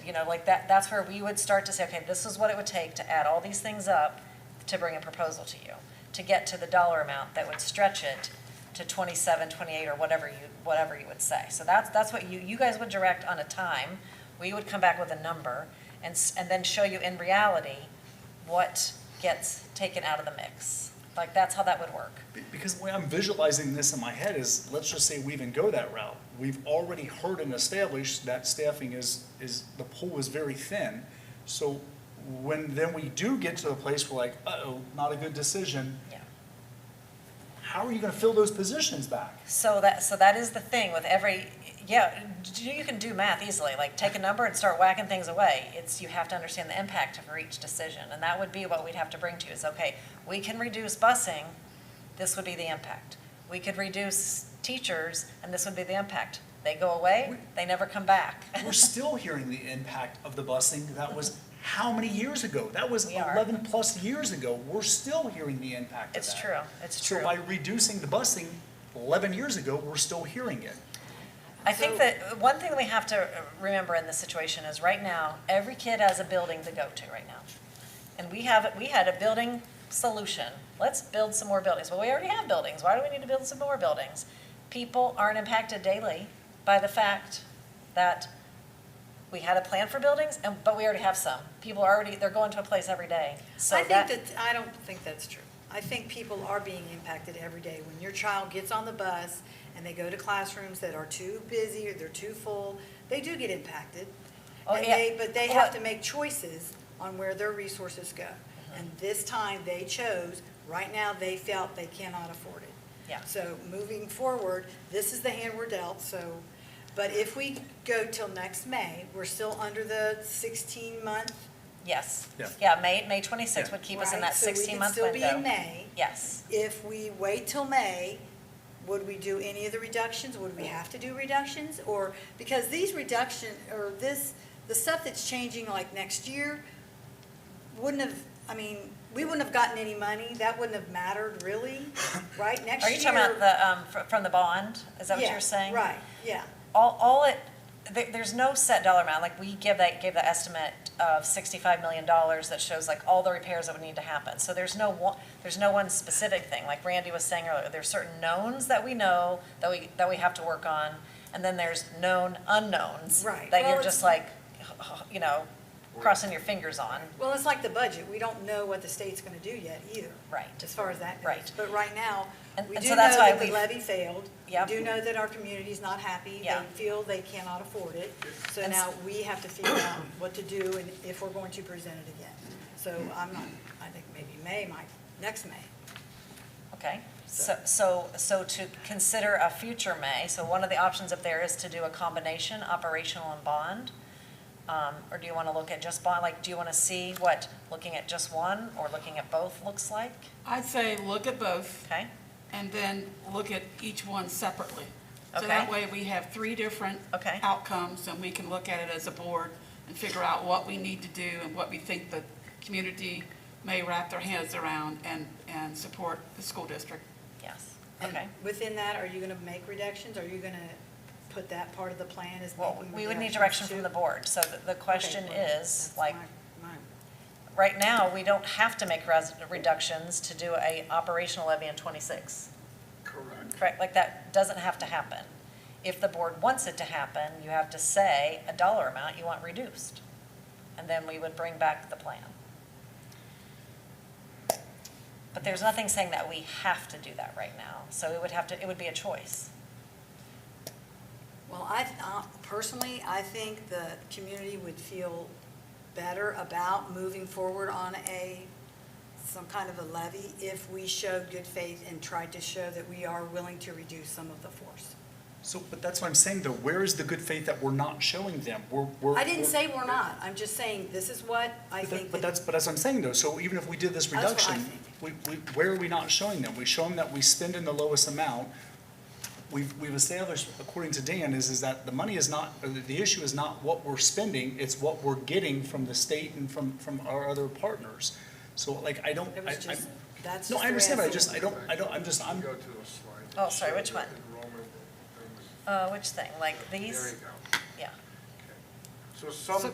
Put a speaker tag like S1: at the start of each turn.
S1: You know, like that, that's where we would start to say, okay, this is what it would take to add all these things up to bring a proposal to you, to get to the dollar amount that would stretch it to 27, 28, or whatever you, whatever you would say. So that's, that's what you, you guys would direct on a time. We would come back with a number and, s- and then show you in reality what gets taken out of the mix. Like, that's how that would work.
S2: Be- Because the way I'm visualizing this in my head is, let's just say we even go that route. We've already heard and established that staffing is, is, the pool is very thin. So when then we do get to a place where like, uh-oh, not a good decision,
S1: Yeah.
S2: how are you gonna fill those positions back?
S1: So that, so that is the thing with every, yeah, d- you can do math easily, like take a number and start whacking things away. It's, you have to understand the impact of each decision, and that would be what we'd have to bring to you, is, okay, we can reduce busing, this would be the impact. We could reduce teachers, and this would be the impact. They go away, they never come back.
S2: We're still hearing the impact of the busing that was how many years ago? That was
S1: We are.
S2: eleven plus years ago. We're still hearing the impact of that.
S1: It's true, it's
S2: So
S1: true.
S2: by reducing the busing eleven years ago, we're still hearing it.
S1: I think that one thing that we have to uh, remember in this situation is right now, every kid has a building to go to right now. And we have, we had a building solution. Let's build some more buildings. Well, we already have buildings. Why do we need to build some more buildings? People aren't impacted daily by the fact that we had a plan for buildings and, but we already have some. People are already, they're going to a place every day. So
S3: I think that, I don't think that's true. I think people are being impacted every day. When your child gets on the bus and they go to classrooms that are too busy or they're too full, they do get impacted.
S1: Oh,
S3: And
S1: yeah.
S3: they, but they have
S1: Well-
S3: to make choices on where their resources go.
S1: Mm-hmm.
S3: And this time they chose, right now they felt they cannot afford it.
S1: Yeah.
S3: So moving forward, this is the hand we're dealt, so, but if we go till next May, we're still under the sixteen month
S1: Yes.
S2: Yeah.
S1: Yeah, May, May twenty-sixth
S2: Yeah.
S1: would keep us in
S3: Right,
S1: that
S3: so we could
S1: sixteen-month
S3: still
S1: window.
S3: be in May.
S1: Yes.
S3: If we wait till May, would we do any of the reductions? Would we have to do reductions? Or, because these reduction, or this, the stuff that's changing like next year, wouldn't have, I mean, we wouldn't have gotten any money. That wouldn't have mattered really, right? Next
S1: Are
S3: year.
S1: you talking about the, um, fr- from the bond? Is that what
S3: Yeah,
S1: you're saying?
S3: Right, yeah.
S1: All, all it, there, there's no set dollar amount, like we give that, gave the estimate of sixty-five million dollars that shows like all the repairs that would need to happen. So there's no one, there's no one specific thing, like Randy was saying earlier, there's certain knowns that we know that we, that we have to work on, and then there's known unknowns.
S3: Right.
S1: That
S3: Well,
S1: you're
S3: it's-
S1: just like, you know, crossing your fingers on.
S3: Well, it's like the budget. We don't know what the state's gonna do yet either.
S1: Right.
S3: As far as that goes.
S1: Right.
S3: But right now,
S1: And-
S3: we
S1: and
S3: do
S1: so
S3: know
S1: that's why
S3: that the
S1: we've-
S3: levy failed. We
S1: Yep.
S3: do know that our community's not happy.
S1: Yeah.
S3: They feel they cannot afford it. So
S1: And s-
S3: now we have to figure out what to do and if we're going to present it again. So I'm not, I think maybe May might, next May.
S1: Okay, so, so, so to consider a future May, so one of the options up there is to do a combination, operational and bond? Um, or do you wanna look at just bond, like, do you wanna see what looking at just one or looking at both looks like?
S4: I'd say look at both
S1: Okay,
S4: and then look at each one separately. So that
S1: Okay.
S4: way we have three different
S1: Okay.
S4: outcomes and we can look at it as a board and figure out what we need to do and what we think the community may wrap their hands around and, and support the school district.
S1: yes,
S3: And
S1: okay.
S3: Within that, are you gonna make reductions? Are you gonna put that part of the plan as
S1: Well,
S3: making
S1: we would need direction
S3: reductions too?
S1: from the board, so the, the
S3: Okay,
S1: question
S3: well,
S1: is,
S3: that's
S1: like,
S3: my- my-
S1: right now, we don't have to make res- reductions to do a operational levy in twenty-six. Correct. Correct, like that doesn't have to happen. If the board wants it to happen, you have to say a dollar amount you want reduced. And then we would bring back the plan. But there's nothing saying that we have to do that right now, so it would have to, it would be a choice.
S3: Well, I, uh, personally, I think the community would feel better about moving forward on a, some kind of a levy if we showed good faith and tried to show that we are willing to reduce some of the force.
S2: So, but that's what I'm saying though, where is the good faith that we're not showing them? We're, we're.
S3: I didn't say we're not, I'm just saying this is what I
S2: But that-
S3: think.
S2: But
S3: that-
S2: that's, but that's what I'm saying though, so even if we did this
S3: That's what I
S2: reduction, we, we, where are we not showing them? We show them that we spend in the lowest amount. We've, we've established, according to Dan, is, is that the money is not, or the, the issue is not what we're spending, it's what we're getting from the state and from, from our other partners. So like, I don't,
S3: It
S2: I,
S3: was
S2: I,
S3: just, that's just
S2: no,
S3: the
S2: I
S3: way
S2: understand, but I
S3: see it.
S2: just, I don't, I don't, I'm just, I'm,
S5: Go to a slide.
S1: Oh, sorry, which one?
S5: Enrollment numbers.
S1: Uh, which thing, like these?
S5: There you go.
S1: Yeah.
S5: So some